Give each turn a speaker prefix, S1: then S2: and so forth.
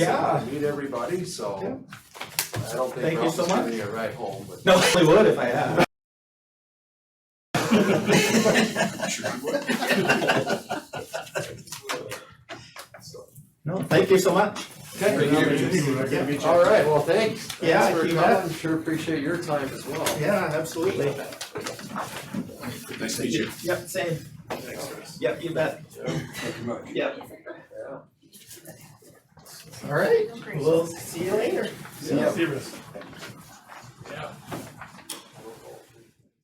S1: Yeah.
S2: Meet everybody, so I don't think
S1: Thank you
S2: Ralph
S1: so
S2: is gonna
S1: much.
S2: be a ride home, but.
S1: No, I would if I had. No, thank you so much.
S2: Thank
S1: Yeah.
S2: All right, well, thanks. Thanks
S1: Yeah,
S2: for
S1: you bet.
S2: coming. Sure appreciate your time as well.
S1: Yeah, absolutely.
S3: Nice to meet you.
S1: Yep, same. Yep, you bet. Yep. All right, we'll see you later.
S2: Yeah.
S4: Serious. Yeah.